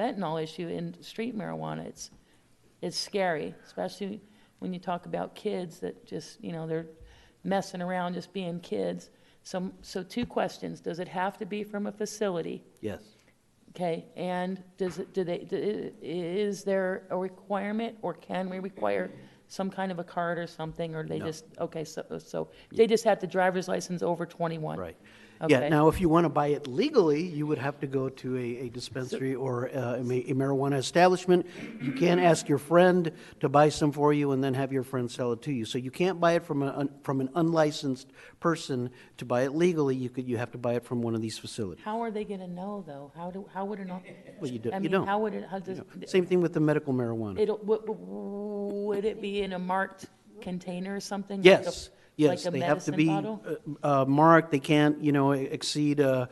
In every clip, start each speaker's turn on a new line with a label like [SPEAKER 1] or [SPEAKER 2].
[SPEAKER 1] fentanyl issue in street marijuana. It's, it's scary, especially when you talk about kids that just, you know, they're messing around, just being kids. So, so two questions. Does it have to be from a facility?
[SPEAKER 2] Yes.
[SPEAKER 1] Okay, and does it, do they, d- i- is there a requirement, or can we require some kind of a card or something, or they
[SPEAKER 2] No.
[SPEAKER 1] just, okay, so, so, they just have the driver's license over twenty-one?
[SPEAKER 2] Right.
[SPEAKER 1] Okay.
[SPEAKER 2] Yeah, now, if you want to buy it legally, you would have to go to a, a dispensary or uh, a ma- a marijuana establishment. You can ask your friend to buy some for you and then have your friend sell it to you. So you can't buy it from a, un- from an unlicensed person. To buy it legally, you could, you have to buy it from one of these facilities.
[SPEAKER 1] How are they gonna know, though? How do, how would it not?
[SPEAKER 2] Well, you do-
[SPEAKER 1] I
[SPEAKER 2] you
[SPEAKER 1] mean,
[SPEAKER 2] don't.
[SPEAKER 1] How would it, how does,
[SPEAKER 2] Same thing with the medical marijuana.
[SPEAKER 1] it'll, would, would it be in a marked container or something? like a-
[SPEAKER 2] Yes, yes,
[SPEAKER 1] Like a
[SPEAKER 2] they have to
[SPEAKER 1] medicine
[SPEAKER 2] be
[SPEAKER 1] bottle?
[SPEAKER 2] uh, uh, marked, they can't, you know, exceed, uh,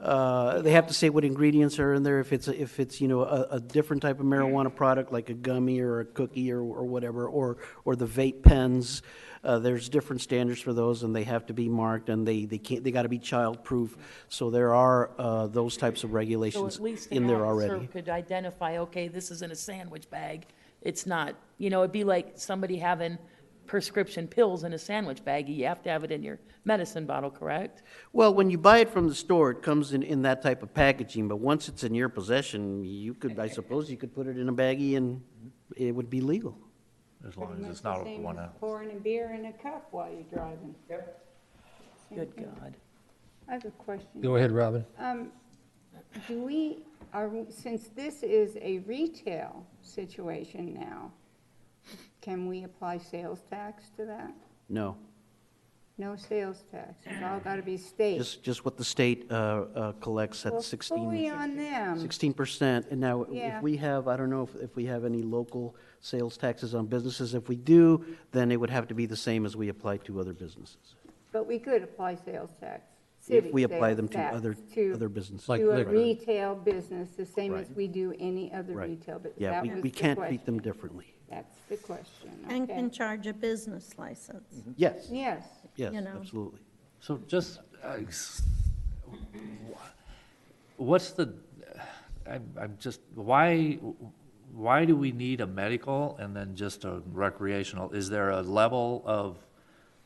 [SPEAKER 2] uh, they have to say what ingredients are in there, if it's, if it's, you know, a, a different type of marijuana product, like a gummy or a cookie or, or whatever, or, or the vape pens, uh, there's different standards for those, and they have to be marked, and they, they can't, they gotta be child-proof, so there are uh, those types of
[SPEAKER 1] So
[SPEAKER 2] regulations
[SPEAKER 1] at least
[SPEAKER 2] in
[SPEAKER 1] an
[SPEAKER 2] there
[SPEAKER 1] officer
[SPEAKER 2] already.
[SPEAKER 1] could identify, okay, this is in a sandwich bag. It's not, you know, it'd be like somebody having prescription pills in a sandwich bag. You have to have it in your medicine bottle, correct?
[SPEAKER 2] Well, when you buy it from the store, it comes in, in that type of packaging, but once it's in your possession, you could, I suppose, you could put it in a baggie and
[SPEAKER 3] Mm-hmm.
[SPEAKER 2] it would be legal.
[SPEAKER 4] As long as it's not over one hour.
[SPEAKER 3] Pouring a beer in a cup while you're driving. Same
[SPEAKER 1] Good
[SPEAKER 3] thing.
[SPEAKER 1] God.
[SPEAKER 3] I have a question.
[SPEAKER 5] Go ahead, Robin.
[SPEAKER 3] Um, do we, are, we- since this is a retail situation now, can we apply sales tax to that?
[SPEAKER 2] No,
[SPEAKER 3] No sales tax, it's all gotta be state.
[SPEAKER 2] just, just what the state uh, uh, collects at
[SPEAKER 3] Well, Fully
[SPEAKER 2] 16,
[SPEAKER 3] on them.
[SPEAKER 2] 16%. And now,
[SPEAKER 3] Yeah.
[SPEAKER 2] if we have, I don't know if, if we have any local sales taxes on businesses. If we do, then it would have to be the same as we apply to other businesses.
[SPEAKER 3] But we could apply sales tax.
[SPEAKER 2] If
[SPEAKER 3] city
[SPEAKER 2] we apply
[SPEAKER 3] sales
[SPEAKER 2] them to
[SPEAKER 3] tax
[SPEAKER 2] other,
[SPEAKER 3] to-
[SPEAKER 2] other businesses.
[SPEAKER 5] Like
[SPEAKER 3] To a
[SPEAKER 5] liquor.
[SPEAKER 3] retail business, the same as
[SPEAKER 2] Right.
[SPEAKER 3] we do any other
[SPEAKER 2] Right.
[SPEAKER 3] retail, but
[SPEAKER 2] Yeah,
[SPEAKER 3] that
[SPEAKER 2] we,
[SPEAKER 3] was
[SPEAKER 2] we
[SPEAKER 3] the
[SPEAKER 2] can't treat
[SPEAKER 3] question.
[SPEAKER 2] them differently.
[SPEAKER 3] That's the question,
[SPEAKER 6] And
[SPEAKER 3] okay.
[SPEAKER 6] can charge a business license.
[SPEAKER 2] Yes,
[SPEAKER 3] Yes,
[SPEAKER 2] yes,
[SPEAKER 6] You know.
[SPEAKER 2] absolutely.
[SPEAKER 4] So just, uh, s- what's the, uh, I'm, I'm just, why, why do we need a medical and then just a recreational? Is there a level of,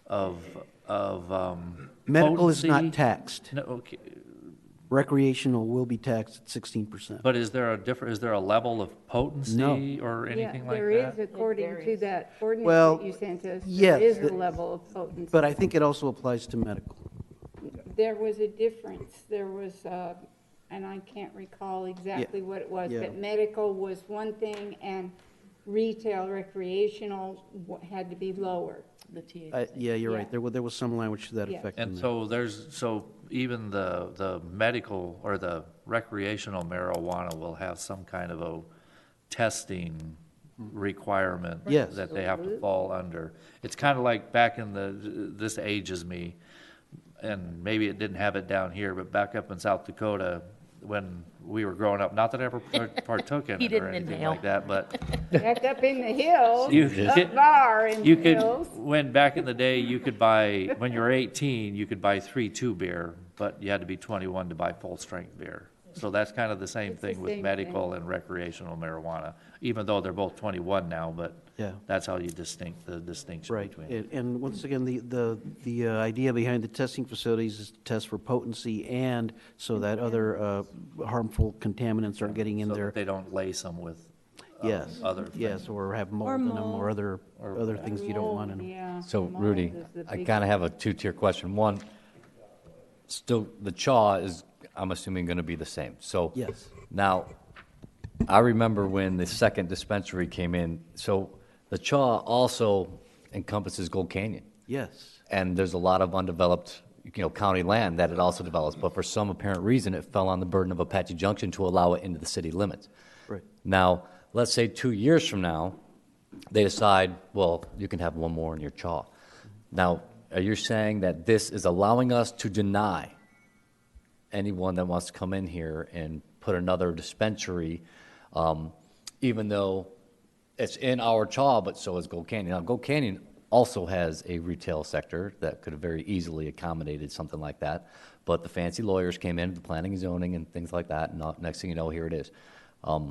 [SPEAKER 4] of, of, um?
[SPEAKER 2] Medical is not
[SPEAKER 4] potency?
[SPEAKER 2] taxed.
[SPEAKER 4] No, okay,
[SPEAKER 2] Recreational will be taxed at 16%.
[SPEAKER 4] but is there a different, is there a level of potency or
[SPEAKER 3] yeah,
[SPEAKER 4] anything like that?
[SPEAKER 3] there is, according to
[SPEAKER 1] varies.
[SPEAKER 3] that ordinance
[SPEAKER 2] Well,
[SPEAKER 3] that you sent us,
[SPEAKER 2] yes,
[SPEAKER 3] there is a
[SPEAKER 2] the-
[SPEAKER 3] level of potency.
[SPEAKER 2] But I think it also applies to medical.
[SPEAKER 3] There was a difference, there was, uh, and I can't recall exactly what it was,
[SPEAKER 2] Yeah.
[SPEAKER 3] but medical was one thing, and retail recreational wa- had to be lower.
[SPEAKER 1] The THC.
[SPEAKER 2] I- Yeah, you're
[SPEAKER 3] Yeah.
[SPEAKER 2] right. There was, there was some language to that
[SPEAKER 3] Yeah.
[SPEAKER 2] effect in
[SPEAKER 4] And
[SPEAKER 2] there.
[SPEAKER 4] so there's, so even the, the medical or the recreational marijuana will have some kind of a testing requirement
[SPEAKER 2] Yes.
[SPEAKER 4] that they have to fall under. It's kind of like back in the, this ages me, and maybe it didn't have it down here, but back up in South Dakota, when we were growing up, not that I ever part- partook in
[SPEAKER 1] He
[SPEAKER 4] it or
[SPEAKER 1] didn't
[SPEAKER 4] anything
[SPEAKER 1] inhale.
[SPEAKER 4] like that, but
[SPEAKER 3] Back up in the hills,
[SPEAKER 4] You
[SPEAKER 3] up
[SPEAKER 4] could-
[SPEAKER 3] bar in the
[SPEAKER 4] you could,
[SPEAKER 3] hills.
[SPEAKER 4] when back in the day, you could buy, when you were 18, you could buy three two beer, but you had to be 21 to buy full strength beer. So that's kind of the same
[SPEAKER 3] It's the
[SPEAKER 4] thing with
[SPEAKER 3] same
[SPEAKER 4] medical and recreational marijuana, even though they're both 21 now, but
[SPEAKER 2] Yeah.
[SPEAKER 4] that's how you distinct, the distinction
[SPEAKER 2] Right.
[SPEAKER 4] between. them.
[SPEAKER 2] And, and once again, the, the, the uh, idea behind the testing facilities is to test for potency and so that other uh, harmful contaminants aren't getting in
[SPEAKER 4] So that
[SPEAKER 2] there.
[SPEAKER 4] they don't lace them with
[SPEAKER 2] Yes,
[SPEAKER 4] other
[SPEAKER 2] yes, or have mold in them or
[SPEAKER 6] mold.
[SPEAKER 2] other, other things you don't want in them.
[SPEAKER 3] Oh, Yeah,
[SPEAKER 7] So
[SPEAKER 3] mold
[SPEAKER 7] Rudy,
[SPEAKER 3] is the
[SPEAKER 7] I
[SPEAKER 3] big-
[SPEAKER 7] kind of have a two-tier question. One, still, the chaw is, I'm assuming, going to be the same, so.
[SPEAKER 2] Yes.
[SPEAKER 7] Now, I remember when the second dispensary came in, so the chaw also encompasses Gold Canyon.
[SPEAKER 2] Yes,
[SPEAKER 7] And there's a lot of undeveloped, you know, county land that it also develops, but for some apparent reason, it fell on the burden of Apache Junction to allow it into the city limits.
[SPEAKER 2] right.
[SPEAKER 7] Now, let's say two years from now, they decide, well, you can have one more in your chaw. Now, are you saying that this is allowing us to deny anyone that wants to come in here and put another dispensary, um, even though it's in our chaw, but so is Gold Canyon. Now, Gold Canyon also has a retail sector that could have very easily accommodated something like that, but the fancy lawyers came in, the planning and zoning and things like that, and now- next thing you know, here it is. Um,